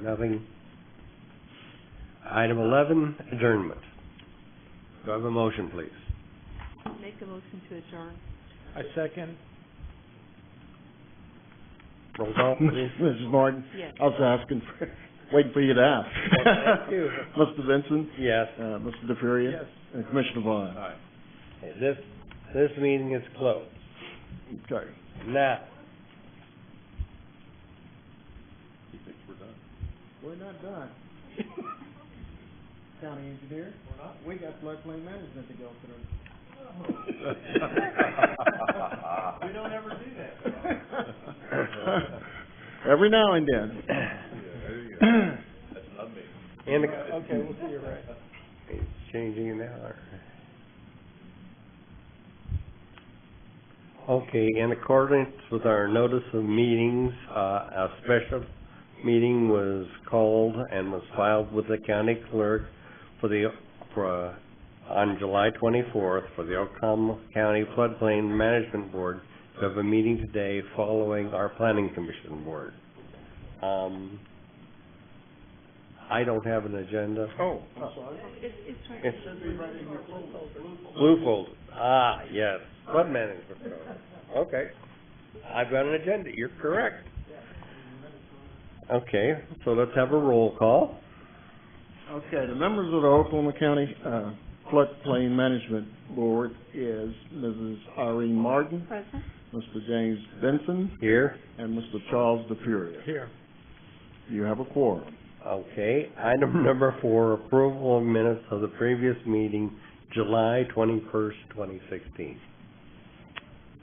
Nothing. Item eleven, adjournment. Do I have a motion, please? Make a motion to adjourn. I second. Roll call, please. Mrs. Martin? Yes. I was asking, for waiting for you to ask. Thank you. Mr. Benson? Yes. Uh, Mr. DeFuria? Yes. And Commissioner Vaughn? Aye. This, this meeting is closed. Okay. Now, We're not done. County engineer? We're not? We got floodplain management to go through. We don't ever do that. Every now and then. in the, Okay, we'll see you right. it's changing an hour. Okay, in accordance with our notice of meetings, uh, a special meeting was called and was filed with the county clerk for the, for, uh, on July twenty-fourth for the Oklahoma County Floodplain Management Board to have a meeting today following our planning commission board. Um, I don't have an agenda. Oh. It's, it's right. It should be Blue folder, ah, yes, flood management program, okay. I've got an agenda, you're correct. Okay, so let's have a roll call. Okay, the members of the Oklahoma County, uh, Floodplain Management Board is Mrs. Irene Martin, Present? Mr. James Benson, Here, and Mr. Charles DeFuria. Here. You have a quorum. okay, item number four, approval of minutes of the previous meeting, July twenty-first, twenty sixteen.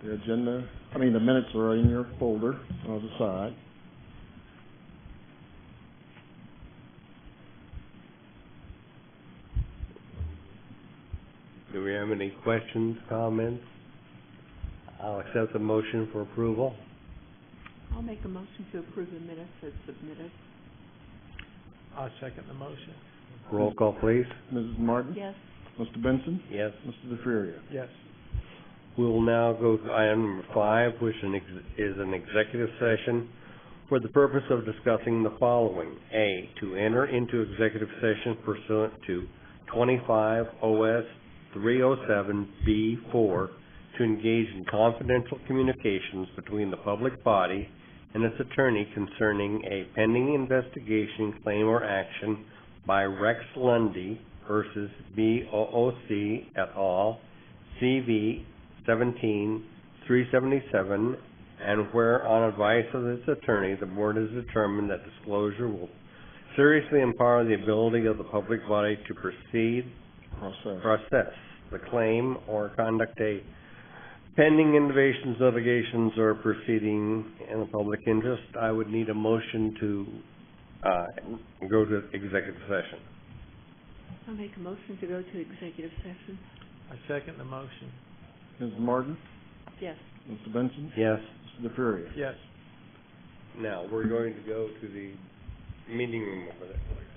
The agenda, I mean, the minutes are in your folder on the side. Do we have any questions, comments? I'll accept the motion for approval. I'll make a motion to approve the minutes as submitted. I second the motion. Roll call, please. Mrs. Martin? Yes. Mr. Benson? Yes. Mr. DeFuria? Yes. We will now go to item number five, which an ex- is an executive session for the purpose of discussing the following. A, to enter into executive session pursuant to twenty-five OS three oh seven B four to engage in confidential communications between the public body and its attorney concerning a pending investigation, claim, or action by Rex Lundy versus BOOC et al., CV seventeen, three seventy-seven, and where on advice of its attorney, the board has determined that disclosure will seriously empower the ability of the public body to proceed, Cross-out. process the claim or conduct a pending innovations, litigations, or proceeding in the public interest. I would need a motion to, uh, go to executive session. I'll make a motion to go to executive session. I second the motion. Mrs. Martin? Yes. Mr. Benson? Yes. Mr. DeFuria? Yes. Now, we're going to go to the meeting room over there.